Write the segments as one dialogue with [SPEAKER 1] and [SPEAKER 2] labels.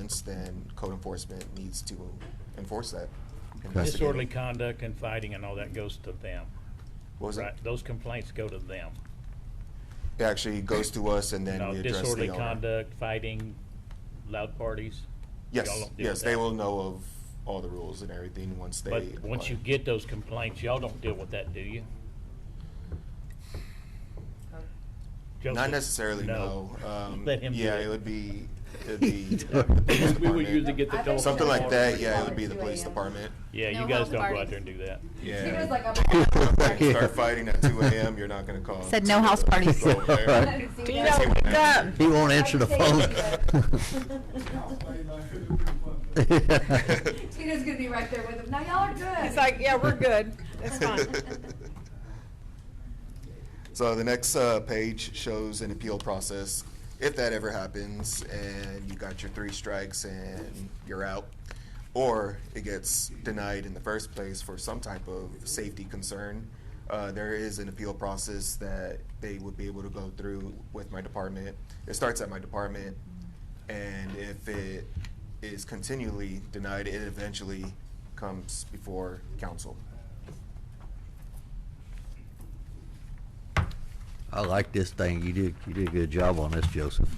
[SPEAKER 1] offense, then code enforcement needs to enforce that.
[SPEAKER 2] That's-
[SPEAKER 3] Disorderly conduct and fighting and all that goes to them.
[SPEAKER 1] What was
[SPEAKER 3] Right,
[SPEAKER 1] it?
[SPEAKER 3] those complaints go to them.
[SPEAKER 1] It actually goes to us and then
[SPEAKER 3] No
[SPEAKER 1] we address
[SPEAKER 3] disorderly
[SPEAKER 1] the owner.
[SPEAKER 3] conduct, fighting, loud parties. y'all
[SPEAKER 1] Yes,
[SPEAKER 3] don't deal
[SPEAKER 1] yes,
[SPEAKER 3] with
[SPEAKER 1] they
[SPEAKER 3] that.
[SPEAKER 1] will know of all the rules and everything once they.
[SPEAKER 3] But once
[SPEAKER 1] apply.
[SPEAKER 3] you get those complaints, y'all don't deal with that, do you?
[SPEAKER 1] Not
[SPEAKER 3] Joseph?
[SPEAKER 1] necessarily, no. Um,
[SPEAKER 3] Let him do
[SPEAKER 1] Yeah,
[SPEAKER 3] it.
[SPEAKER 1] it would be, it'd be. the police
[SPEAKER 3] We would usually
[SPEAKER 1] department.
[SPEAKER 3] get the
[SPEAKER 4] I bet
[SPEAKER 3] dog.
[SPEAKER 1] Something like that, yeah, it would be the
[SPEAKER 4] Call it
[SPEAKER 1] police
[SPEAKER 4] 2 a.m.
[SPEAKER 1] department.
[SPEAKER 3] Yeah,
[SPEAKER 5] No
[SPEAKER 3] you guys
[SPEAKER 5] house
[SPEAKER 3] don't go out
[SPEAKER 5] parties.
[SPEAKER 3] there and do that.
[SPEAKER 4] He was like,
[SPEAKER 1] Yeah.
[SPEAKER 4] I'm-
[SPEAKER 2] Yeah.
[SPEAKER 1] Start fighting at two AM, you're not gonna call.
[SPEAKER 5] Said no house parties.
[SPEAKER 1] Go
[SPEAKER 4] I
[SPEAKER 1] there.
[SPEAKER 4] haven't seen
[SPEAKER 6] Tino,
[SPEAKER 4] that.
[SPEAKER 6] wake up.
[SPEAKER 2] He won't answer the phone.
[SPEAKER 4] Tina's gonna be right there with him. Now y'all are good.
[SPEAKER 6] He's like, yeah, we're good. It's fine.
[SPEAKER 1] So the next uh, page shows an appeal process, if that ever happens, and you got your three strikes and you're out, or it gets denied in the first place for some type of safety concern. Uh, there is an appeal process that they would be able to go through with my department. It starts at my department, and if it is continually denied, it eventually comes before council.
[SPEAKER 2] I like this thing. You did, you did a good job on this, Joseph.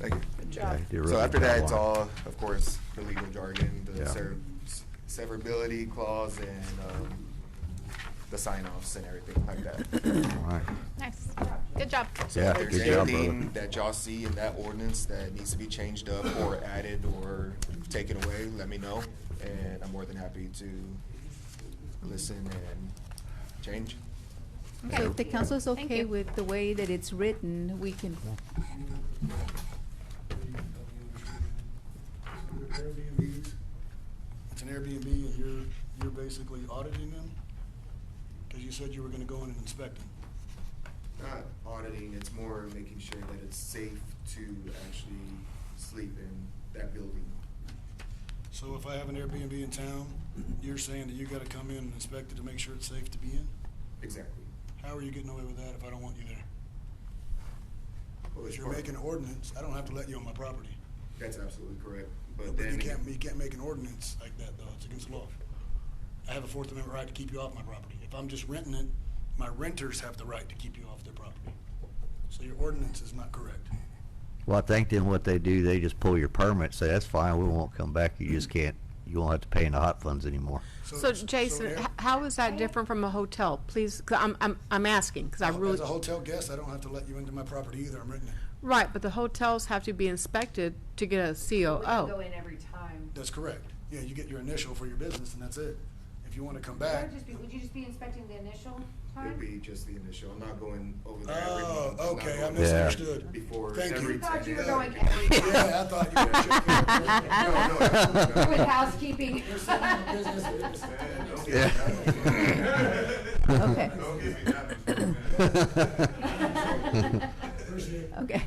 [SPEAKER 1] Thank you.
[SPEAKER 6] Good job.
[SPEAKER 2] Yeah, you did a
[SPEAKER 1] So
[SPEAKER 2] really
[SPEAKER 1] after
[SPEAKER 2] good
[SPEAKER 1] that,
[SPEAKER 2] job
[SPEAKER 1] it's
[SPEAKER 2] on it.
[SPEAKER 1] all, of course, the legal jargon, the
[SPEAKER 2] Yeah.
[SPEAKER 1] sever- severability clause and um, the sign-offs and everything like that.
[SPEAKER 2] All right.
[SPEAKER 5] Nice. Good job.
[SPEAKER 1] So
[SPEAKER 2] Yeah,
[SPEAKER 1] if there's
[SPEAKER 2] good job, brother.
[SPEAKER 1] anything that y'all see in that ordinance that needs to be changed up or added or taken away, let me know. And I'm more than happy to listen and change.
[SPEAKER 7] So if the council is
[SPEAKER 5] Thank
[SPEAKER 7] okay
[SPEAKER 5] you.
[SPEAKER 7] with the way that it's written, we can,
[SPEAKER 8] Airbnbs, it's an Airbnb and you're, you're basically auditing them? Because you said you were gonna go in and inspect them.
[SPEAKER 1] Not auditing, it's more making sure that it's safe to actually sleep in that building.
[SPEAKER 8] So if I have an Airbnb in town, you're saying that you gotta come in and inspect it to make sure it's safe to be in?
[SPEAKER 1] Exactly.
[SPEAKER 8] How are you getting away with that if I don't want you there?
[SPEAKER 1] Well, it's
[SPEAKER 8] If you're
[SPEAKER 1] part-
[SPEAKER 8] making an ordinance, I don't have to let you on my property.
[SPEAKER 1] That's absolutely correct, but
[SPEAKER 8] But
[SPEAKER 1] then.
[SPEAKER 8] you can't, you can't make an ordinance like that though, it's against the law. I have a Fourth Amendment right to keep you off my property. If I'm just renting it, my renters have the right to keep you off their property. So your ordinance is not correct.
[SPEAKER 2] Well, I think then what they do, they just pull your permit, say, that's fine, we won't come back. You just can't, you won't have to pay in the hot funds anymore.
[SPEAKER 6] So Jason,
[SPEAKER 8] air-
[SPEAKER 6] h- how is that different from a hotel? Please, 'cause I'm, I'm, I'm asking, because I
[SPEAKER 8] As
[SPEAKER 6] really,
[SPEAKER 8] a hotel guest, I don't have to let you into my property either, I'm renting it.
[SPEAKER 6] right, but the hotels have to be inspected to get a
[SPEAKER 4] We don't go
[SPEAKER 6] COO.
[SPEAKER 4] in every time.
[SPEAKER 8] That's correct. Yeah, you get your initial for your business and that's it. If you wanna come
[SPEAKER 4] That
[SPEAKER 8] back.
[SPEAKER 4] would just be- Would you just be inspecting the initial
[SPEAKER 1] Oh. It'd
[SPEAKER 4] time?
[SPEAKER 1] be just the initial, I'm not going over there every
[SPEAKER 8] Oh,
[SPEAKER 1] month. I'm not
[SPEAKER 8] okay, I
[SPEAKER 1] going
[SPEAKER 8] misunderstood.
[SPEAKER 1] Before
[SPEAKER 8] Thank
[SPEAKER 1] every.
[SPEAKER 8] you.
[SPEAKER 4] I thought you were
[SPEAKER 1] ten-
[SPEAKER 4] going every time.
[SPEAKER 8] Yeah, I thought you were
[SPEAKER 1] No,
[SPEAKER 8] checking.
[SPEAKER 1] no, absolutely
[SPEAKER 4] With
[SPEAKER 1] not.
[SPEAKER 4] housekeeping.
[SPEAKER 8] You're setting up a business.
[SPEAKER 1] Man, don't
[SPEAKER 2] Yeah.
[SPEAKER 1] give me that one.
[SPEAKER 7] Okay.
[SPEAKER 1] Don't give me that one.
[SPEAKER 8] Appreciate it.
[SPEAKER 7] okay.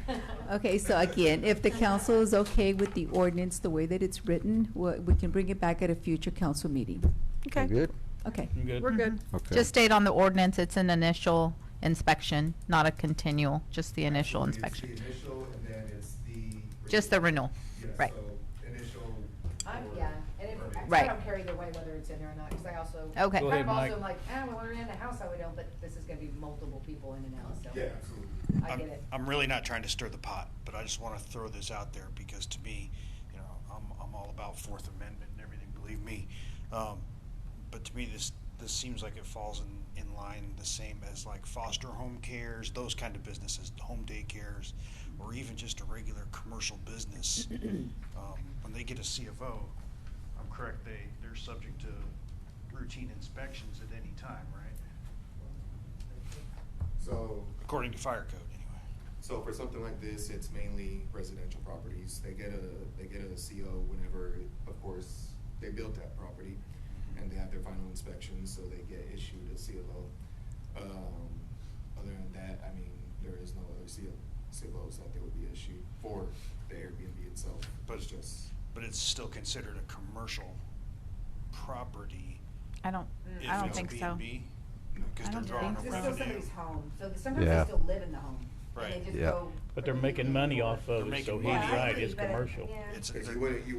[SPEAKER 7] Okay, so again, if the council is okay with the ordinance, the way that it's written, we we can bring it back at a future council meeting.
[SPEAKER 2] You
[SPEAKER 6] Okay,
[SPEAKER 2] Good?
[SPEAKER 7] Okay.
[SPEAKER 3] I'm good.
[SPEAKER 6] we're good.
[SPEAKER 2] Okay.
[SPEAKER 5] Mm-hmm. Just state on the ordinance, it's an initial inspection, not a continual, just the initial
[SPEAKER 1] It's
[SPEAKER 5] inspection.
[SPEAKER 1] the initial and then it's the.
[SPEAKER 5] Just the renewal,
[SPEAKER 1] Yes,
[SPEAKER 5] right.
[SPEAKER 1] so Initial.
[SPEAKER 4] I'm,
[SPEAKER 1] or-
[SPEAKER 4] yeah, and if, I- I
[SPEAKER 5] Right.
[SPEAKER 4] don't care either way whether it's in there or not, because I also.
[SPEAKER 5] Okay. Go
[SPEAKER 3] ahead,
[SPEAKER 4] Kind of also
[SPEAKER 3] Mike.
[SPEAKER 4] am like, ah, well, we're in the house, I would know, but this is gonna be multiple people in and out, so.
[SPEAKER 1] Yeah, absolutely.
[SPEAKER 4] I
[SPEAKER 9] I'm-
[SPEAKER 4] get it.
[SPEAKER 9] I'm really not trying to stir the pot, but I just want to throw this out there because to me, you know, I'm, I'm all about Fourth Amendment and everything, believe me. Um, but to me, this, this seems like it falls in, in line the same as like foster home cares, those kind of businesses, home daycares, or even just a regular commercial business. Um, when they get a CFO, I'm correct, they, they're subject to routine inspections at any time, right?
[SPEAKER 1] So,
[SPEAKER 9] According to fire code, anyway.
[SPEAKER 1] So for something like this, it's mainly residential properties. They get a, they get a CO whenever, of course, they built that property and they have their final inspection, so they get issued a CLO. Um, other than that, I mean, there is no other CO, CLOs that they would be issued for the Airbnb itself.
[SPEAKER 9] But-
[SPEAKER 1] It's just,
[SPEAKER 9] but it's still considered a commercial property.
[SPEAKER 5] I don't,
[SPEAKER 4] Mm,
[SPEAKER 9] if
[SPEAKER 5] I don't
[SPEAKER 9] it's a
[SPEAKER 5] think so.
[SPEAKER 9] B&B,
[SPEAKER 5] I
[SPEAKER 9] Because they're
[SPEAKER 5] don't
[SPEAKER 9] drawing
[SPEAKER 5] think
[SPEAKER 9] a
[SPEAKER 4] This
[SPEAKER 5] so.
[SPEAKER 4] is still
[SPEAKER 9] revenue.
[SPEAKER 4] somebody's home, so sometimes they
[SPEAKER 2] Yeah.
[SPEAKER 4] still live in the home. and they
[SPEAKER 9] Right.
[SPEAKER 4] just
[SPEAKER 2] Yeah.
[SPEAKER 4] go-
[SPEAKER 3] But they're making money off of
[SPEAKER 9] They're
[SPEAKER 3] it, so he's
[SPEAKER 9] making
[SPEAKER 4] Yeah, I
[SPEAKER 9] money.
[SPEAKER 3] right,
[SPEAKER 4] agree,
[SPEAKER 3] it's
[SPEAKER 4] but,
[SPEAKER 3] commercial.
[SPEAKER 4] yeah.
[SPEAKER 9] It's,
[SPEAKER 1] because
[SPEAKER 9] they're-
[SPEAKER 1] you wouldn't, you